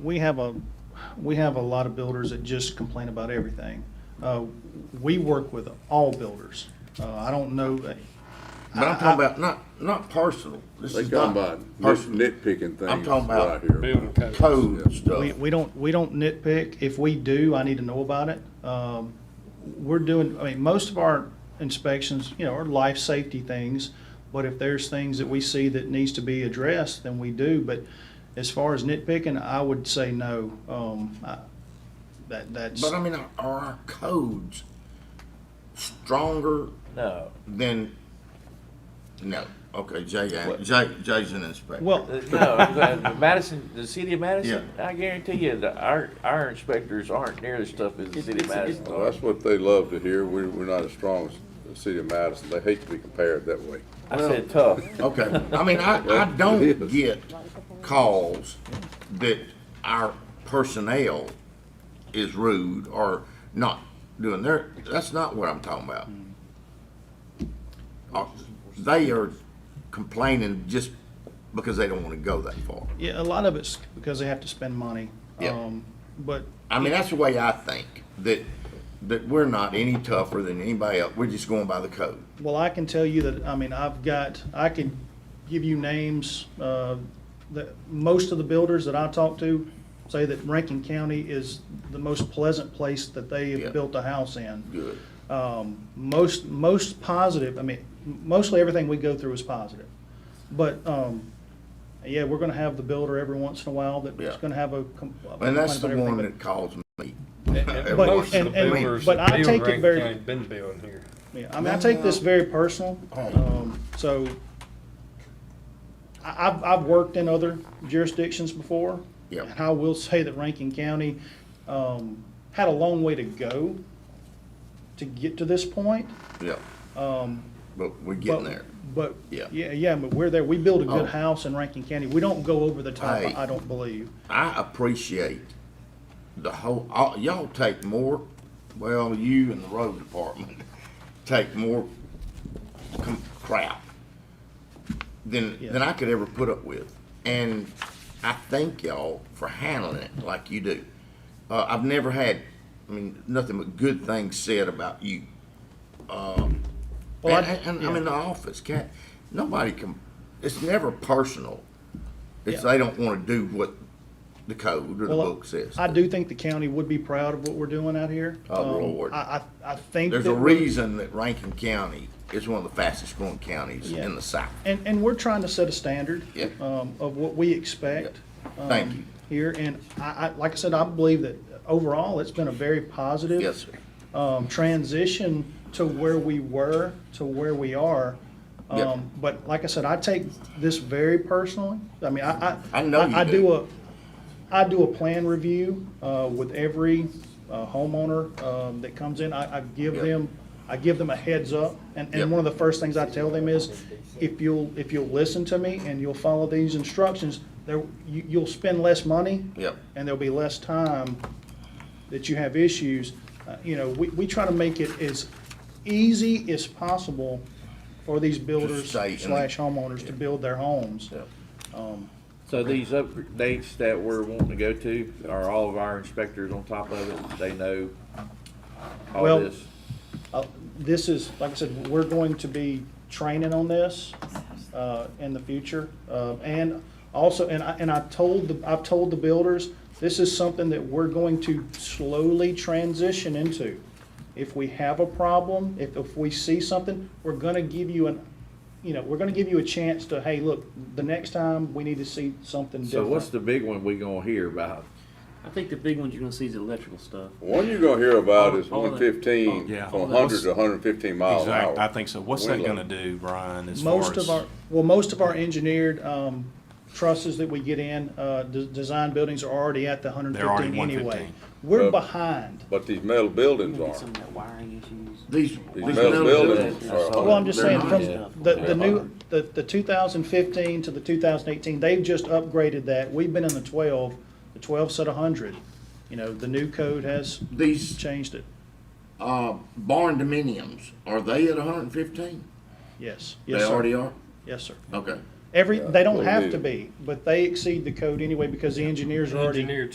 We have a, we have a lot of builders that just complain about everything. Uh, We work with all builders. Uh, I don't know, But I'm talking about not, not personal. This They is talking not about personal. nit- nitpicking things. I'm talking about right here. Building codes. Code we, stuff. we don't, we don't nitpick. If we do, I need to know about it. Um, We're doing, I mean, most of our inspections, you know, are life safety things, but if there's things that we see that needs to be addressed, then we do. But as far as nitpicking, I would say no. Um, I- That, that's. But I mean, are our codes stronger No. than, no, okay, Jay, ain't- Jay, Jay's an inspector. Well- Uh, No, uh, Madison, the city of Madison, Yeah. I guarantee you that our, our inspectors aren't near as tough as the city of Madison. Well, that's what they love to hear. We're, we're not as strong as the city of Madison. They hate to be compared that way. I said tough. Okay, I mean, I, I It don't is. get calls that our personnel is rude or not doing their, that's not what I'm talking about. Uh, They are complaining just because they don't wanna go that far. Yeah, a lot of it's because they have to spend money. Yeah. Um, But, I mean, that's the way I think, that, that we're not any tougher than anybody else, we're just going by the code. well, I can tell you that, I mean, I've got, I can give you names, uh, that, most of the builders that I talk to say that Rankin County is the most pleasant place that they Yeah. have built a house in. Good. Um, most, most positive, I mean, mostly everything we go through is positive. But, um, yeah, we're gonna have the builder every once in a while that's Yeah. gonna have a. com- a And complaint that's the about everything, one but- that calls me. And But- most of and- the and- builders but that I build take it Rankin very- County been building here. Yeah, I mean, I take this very personal, um, so I, I've, I've worked in other jurisdictions before. Yeah. And I will say that Rankin County, um, had a long way to go to get to this point. Yeah. Um, But we're getting but- there. But, Yeah. yeah, yeah, but we're there, we build a Oh. good house in Rankin County, we don't go over the top, Hey. I don't believe. I appreciate the whole, all- y'all take more, well, you and the road department take more com- crap than, than I could ever put up with. And I thank y'all for handling it like you do. Uh, I've never had, I mean, nothing but good things said about you. Well, I- and, and, and I'm in the office. Can't nobody can. It's never personal. It's Yeah. they don't want to do what the code or the Well, book says. I do think the county would be proud of what we're doing out here. Oh, Um, Lord. I, I, I think. There's that a we're- reason that Rankin County is one of the fastest growing counties Yeah. in the South. And, and we're trying to set a standard. Yeah. Um, of what we expect. Thank um, you. Here, and I, I, like I said, I believe that overall, it's been a very positive. Yes, sir. Um, transition to where we were, to where we are. Yeah. Um, but like I said, I take this very personally. I mean, I, I. I know you I do. do a, I do a plan review, uh, with every uh, homeowner, um, that comes in. I, I give Yeah. them, I give them a heads up. And, Yeah. and one of the first things I tell them is, if you'll, if you'll listen to me and you'll follow these instructions, there, you, you'll spend less money. Yep. And there'll be less time that you have issues. Uh, You know, we, we try to make it as easy as possible for these builders stay in the- slash homeowners to build their homes. Yeah. So these updates that we're wanting to go to, are all of our inspectors on top of it? They know all Well- this? Uh, This is, like I said, we're going to be training on this uh, in the future. Uh, And also, and I, and I told, the I've told the builders, this is something that we're going to slowly transition into. If we have a problem, if, if we see something, we're gonna give you an, you know, we're gonna give you a chance to, hey, look, the next time, we need to see something So what's different. the big one we gonna hear about? I think the big ones you're gonna see is electrical stuff. One you're gonna hear about Oh, is all that- one fifteen, Yeah. from hundred to hundred and fifteen miles an hour. Exactly, I think so. What's that Wind gonna load. do, Brian, as far as? Most of our, well, most of our engineered um, trusses that we get in, uh, de- design buildings are already at the hundred They're already fifteen anyway. 115. We're Uh, behind. But these metal buildings Get some aren't. of that wiring issues. These, These these metal little buildings buildings. are. Well, Well, I'm just they're saying, not from yet. the, the They're new, not. the, the two thousand fifteen to the two thousand eighteen, they've just upgraded that. We've been in the twelve, the twelve set a hundred. You know, the new code has These changed it. uh, barn dominiums are they at 115? Yes, They yes, sir. already are. Yes, sir. Okay. Every, Yeah, they don't we have need to it. be, but they exceed the code anyway because the engineers are already Engineered